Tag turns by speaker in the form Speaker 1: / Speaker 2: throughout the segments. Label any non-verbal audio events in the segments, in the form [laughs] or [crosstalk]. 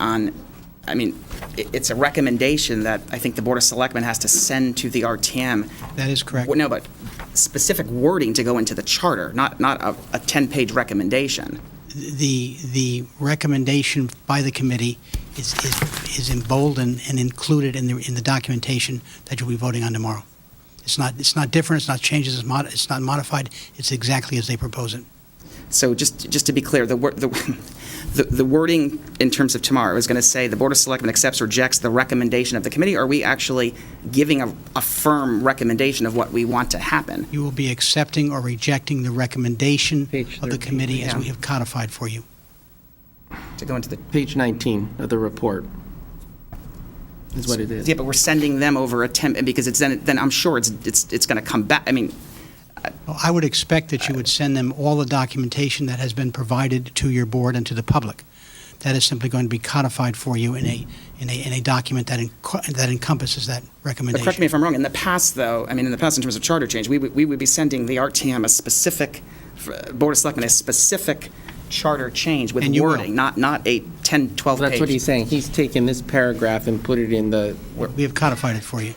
Speaker 1: on, I mean, i- it's a recommendation that I think the Board of Selectmen has to send to the RTM.
Speaker 2: That is correct.
Speaker 1: Well, No, but specific wording to go into the charter, not, not a, a 10-page recommendation.
Speaker 2: the, the recommendation by the committee is, is is emboldened and included in the, in the documentation that you'll be voting on tomorrow. It's not, it's not different, it's not changes, it's mod, it's not modified, it's exactly as they propose it.
Speaker 1: So just, just to be clear, the, wor- the [laughs] the the wording in terms of tomorrow is going to say the Board of Selectmen accepts or rejects the recommendation of the committee? Are we actually giving a, a firm recommendation of what we want to happen?
Speaker 2: You will be accepting or rejecting the recommendation
Speaker 3: Page
Speaker 2: of the
Speaker 3: 13,
Speaker 2: committee as
Speaker 1: yeah.
Speaker 2: we have codified for you.
Speaker 1: To go into the,
Speaker 3: Page 19 of the report is what it is.
Speaker 1: yeah, but we're sending them over a 10, because it's then, then I'm sure it's, it's, it's going to come back, I mean,
Speaker 2: Well, I would expect that you would send them all the documentation that has been provided to your board and to the public. That is simply going to be codified for you in a, in a, in a document that enco- that encompasses that
Speaker 1: But
Speaker 2: recommendation.
Speaker 1: correct me if I'm wrong, in the past, though, I mean, in the past, in terms of charter change, we would, we would be sending the RTM a specific, f- Board of Selectmen, a specific charter change with
Speaker 2: And you will.
Speaker 1: wording, not, not a 10, 12-page.
Speaker 3: That's what he's saying. He's taken this paragraph and put it in the,
Speaker 2: We have codified it for you.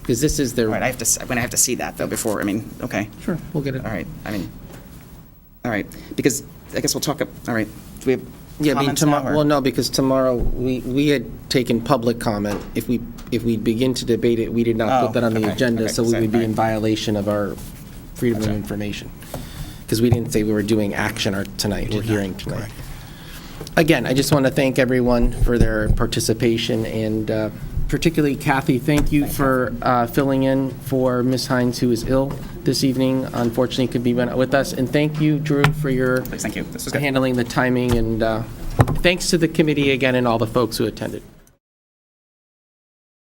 Speaker 3: because this is
Speaker 1: All right, I
Speaker 3: their,
Speaker 1: have to, s- I'm going to have to see that, though, before, I mean, okay.
Speaker 3: Sure, we'll get it.
Speaker 1: All right, I mean, all right, because I guess we'll talk, ab- all right, do we have
Speaker 3: yeah, I mean,
Speaker 1: comments now,
Speaker 3: tomorrow,
Speaker 1: or-
Speaker 3: well, no, because tomorrow, we, we had taken public comment. If we, if we begin to debate it, we did not
Speaker 1: Oh,
Speaker 3: put that on the
Speaker 1: okay,
Speaker 3: agenda,
Speaker 1: okay,
Speaker 3: so we
Speaker 1: sorry,
Speaker 3: would be
Speaker 1: all
Speaker 3: in
Speaker 1: right.
Speaker 3: violation of our freedom of information. Because we didn't say we were doing action or tonight, we're hearing tonight.
Speaker 2: Correct.
Speaker 3: Again, I just want to thank everyone for their participation, and uh, particularly Kathy, thank you for uh, filling in for Ms. Hines, who is ill this evening, unfortunately could be with us, and thank you, Drew, for your
Speaker 1: Thank you, this was good.
Speaker 3: handling the timing, and uh, thanks to the committee again and all the folks who attended.